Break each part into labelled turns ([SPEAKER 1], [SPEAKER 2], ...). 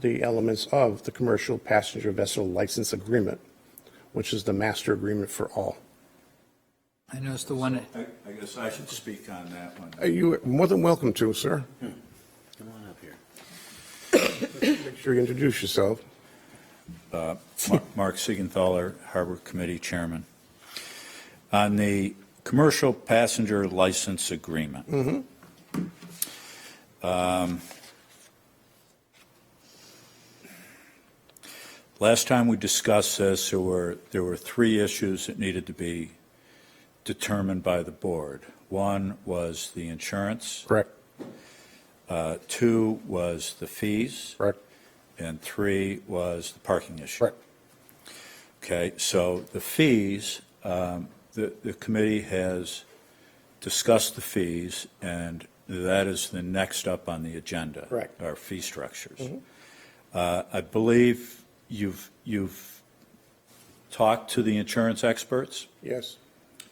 [SPEAKER 1] the elements of the Commercial Passenger Vessel License Agreement, which is the master agreement for all.
[SPEAKER 2] I noticed the one,
[SPEAKER 3] I, I guess I should speak on that one.
[SPEAKER 1] Uh, You are more than welcome to, sir.
[SPEAKER 4] Hmm. Come on up here.
[SPEAKER 1] Make sure you introduce yourself.
[SPEAKER 3] Uh, Mar- Mark Siegenthaler, Harbor Committee Chairman. On the commercial passenger license agreement. Um, Last time we discussed this, there were, there were three issues that needed to be determined by the board. One was the insurance.
[SPEAKER 1] Correct,
[SPEAKER 3] Uh, Two was the fees.
[SPEAKER 1] correct,
[SPEAKER 3] And three was the parking issue.
[SPEAKER 1] correct.
[SPEAKER 3] Okay, so the fees, um, the, the committee has discussed the fees, and that is the next up on the agenda.
[SPEAKER 1] Correct.
[SPEAKER 3] Our fee structures. Uh, I believe you've, you've talked to the insurance experts,
[SPEAKER 1] Yes,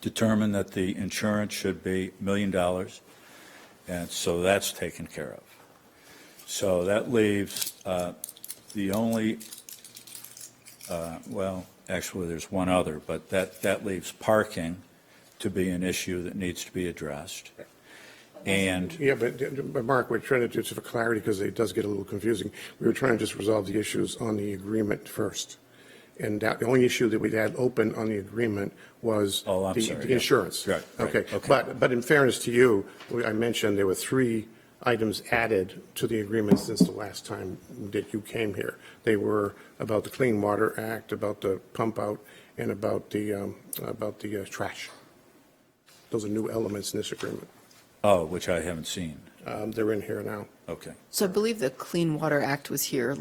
[SPEAKER 3] determined that the insurance should be a million dollars, and so that's taken care of. So that leaves uh, the only, uh, well, actually, there's one other, but that, that leaves parking to be an issue that needs to be addressed. And,
[SPEAKER 1] yeah, but, but Mark, we're trying to do, just for clarity, because it does get a little confusing, we were trying to just resolve the issues on the agreement first. And that, the only issue that we had open on the agreement was
[SPEAKER 3] Oh, I'm
[SPEAKER 1] the-
[SPEAKER 3] sorry,
[SPEAKER 1] the
[SPEAKER 3] yeah.
[SPEAKER 1] insurance.
[SPEAKER 3] Right, right,
[SPEAKER 1] Okay,
[SPEAKER 3] okay.
[SPEAKER 1] but, but in fairness to you, we- I mentioned there were three items added to the agreement since the last time that you came here. They were about the Clean Water Act, about the pump out, and about the, um, about the uh, trash. Those are new elements in this agreement.
[SPEAKER 3] oh, which I haven't seen.
[SPEAKER 1] Um, They're in here now.
[SPEAKER 3] Okay.
[SPEAKER 5] So I believe the Clean Water Act was here.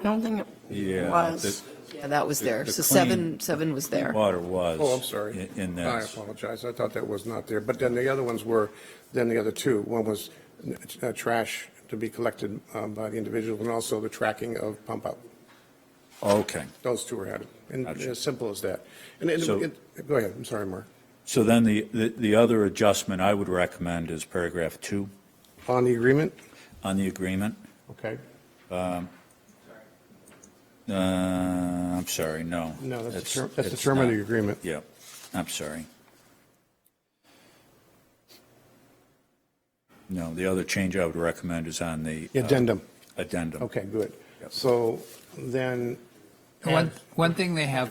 [SPEAKER 6] I don't think
[SPEAKER 3] Yeah,
[SPEAKER 6] it was.
[SPEAKER 3] the-
[SPEAKER 5] Yeah, that was there.
[SPEAKER 3] the
[SPEAKER 5] So
[SPEAKER 3] clean-
[SPEAKER 5] seven, seven was there.
[SPEAKER 3] Water was.
[SPEAKER 1] Oh, I'm sorry.
[SPEAKER 3] in- In
[SPEAKER 1] I
[SPEAKER 3] this.
[SPEAKER 1] apologize. I thought that was not there. But then the other ones were, then the other two. One was uh, trash to be collected um, by the individual and also the tracking of pump out.
[SPEAKER 3] Okay.
[SPEAKER 1] Those two are added. And
[SPEAKER 3] Gotcha.
[SPEAKER 1] as simple as that. And, and,
[SPEAKER 3] So-
[SPEAKER 1] it- go ahead. I'm sorry, Mark.
[SPEAKER 3] So then the, the the other adjustment I would recommend is paragraph two
[SPEAKER 1] On the agreement?
[SPEAKER 3] on the agreement.
[SPEAKER 1] Okay.
[SPEAKER 3] Uh, I'm sorry, no.
[SPEAKER 1] No, that's the
[SPEAKER 3] It's-
[SPEAKER 1] term, that's the
[SPEAKER 3] it's
[SPEAKER 1] term of
[SPEAKER 3] not.
[SPEAKER 1] the agreement.
[SPEAKER 3] Yeah, I'm sorry. No, the other change I would recommend is on the. uh,
[SPEAKER 1] Addendum.
[SPEAKER 3] Addendum.
[SPEAKER 1] Okay, good.
[SPEAKER 3] Yep.
[SPEAKER 1] So then.
[SPEAKER 2] one, one thing they have,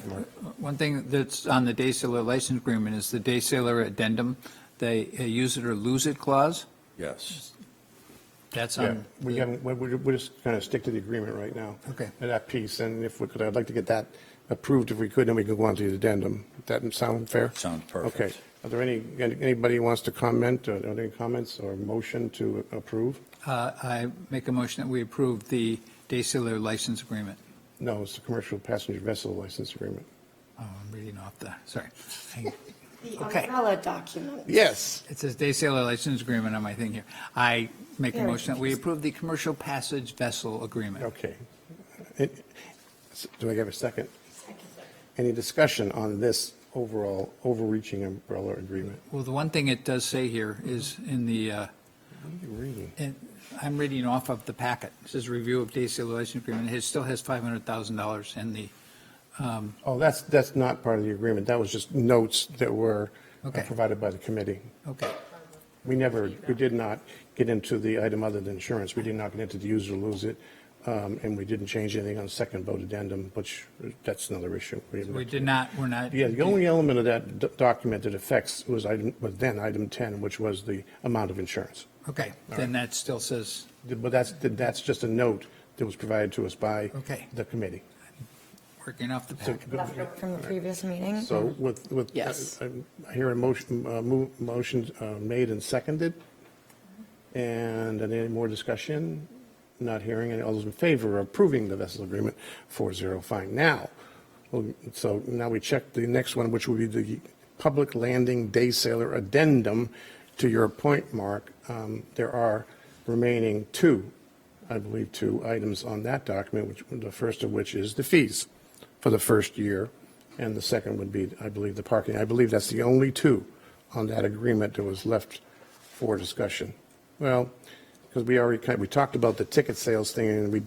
[SPEAKER 2] one thing that's on the day sailor license agreement is the day sailor addendum, they uh, use it or lose it clause.
[SPEAKER 3] Yes.
[SPEAKER 2] That's
[SPEAKER 1] Yeah,
[SPEAKER 2] on,
[SPEAKER 1] Um, we
[SPEAKER 2] the-
[SPEAKER 1] haven't, we're, we're we're just going to stick to the agreement right now.
[SPEAKER 2] Okay.
[SPEAKER 1] And That piece, and if we could, I'd like to get that approved if we could, then we could go on to the addendum. That sound fair?
[SPEAKER 3] Sounds perfect.
[SPEAKER 1] Okay. Are there any, anybody who wants to comment, or are there any comments or motion to approve?
[SPEAKER 2] uh, I make a motion that we approve the day sailor license agreement.
[SPEAKER 1] No, it's the commercial passenger vessel license agreement.
[SPEAKER 2] Oh, I'm reading off the, sorry. Hang-
[SPEAKER 6] The
[SPEAKER 2] Okay.
[SPEAKER 6] umbrella document.
[SPEAKER 1] Yes.
[SPEAKER 2] It says day sailor license agreement on my thing here. I make a
[SPEAKER 6] Very
[SPEAKER 2] motion that we approve the commercial passage vessel agreement.
[SPEAKER 1] Okay. It- Do I have a second? Any discussion on this overall overreaching umbrella agreement?
[SPEAKER 2] Well, the one thing it does say here is in the, uh,
[SPEAKER 1] What are you reading?
[SPEAKER 2] And I'm reading off of the packet. It says review of day sale license agreement. It still has $500,000 in the, um,
[SPEAKER 1] Oh, that's, that's not part of the agreement. That was just notes that were uh,
[SPEAKER 2] Okay.
[SPEAKER 1] provided by the committee.
[SPEAKER 2] okay.
[SPEAKER 1] We never, we did not get into the item other than insurance. We did not get into the use or lose it. um, And we didn't change anything on second vote addendum, which, that's another issue.
[SPEAKER 2] We did not, we're not.
[SPEAKER 1] Yeah, the only element of that d- document that affects was item, was then item 10, which was the amount of insurance.
[SPEAKER 2] Okay, then that still says,
[SPEAKER 1] But that's, that's just a note that was provided to us by
[SPEAKER 2] Okay.
[SPEAKER 1] the committee.
[SPEAKER 2] working off the packet.
[SPEAKER 6] Leftover From the previous meeting.
[SPEAKER 1] So with, with. uh,
[SPEAKER 5] Yes.
[SPEAKER 1] I I hear a motion, uh, mo- motion uh, made and seconded. And any more discussion? Not hearing any. All those in favor of approving the vessel agreement, four zero, fine. Now, well, so now we check the next one, which would be the public landing day sailor addendum. To your point, Mark, um, there are remaining two, I believe, two items on that document, which, the first of which is the fees for the first year, and the second would be, I believe, the parking. I believe that's the only two on that agreement that was left for discussion. Well, because we already, kind- we talked about the ticket sales thing, and we